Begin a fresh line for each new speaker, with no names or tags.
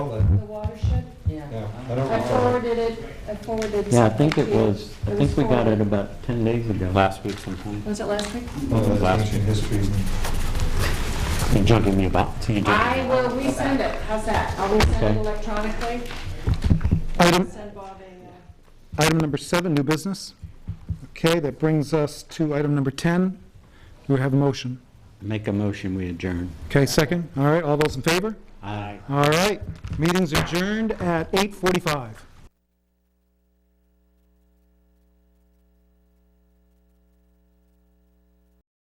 the watershed?
Yeah,
Yeah.
I don't
I
recall.
forwarded it, I forwarded.
Yeah, I think it
something to you.
was, I think we got it
forwarded.
about 10 days ago.
last week sometime.
Was it last week?
Uh, that's Ancient history.
You're joking me about. you're joking.
I will resend it, how's that? I'll resend
Okay.
it electronically.
Item,
Send Bob a, uh,
item number seven, new business. Okay, that brings us to item number 10. Do we have a motion?
Make a motion, we adjourn.
Okay, second. All right, all those in favor?
Aye.
All right, meeting's adjourned at 8:45.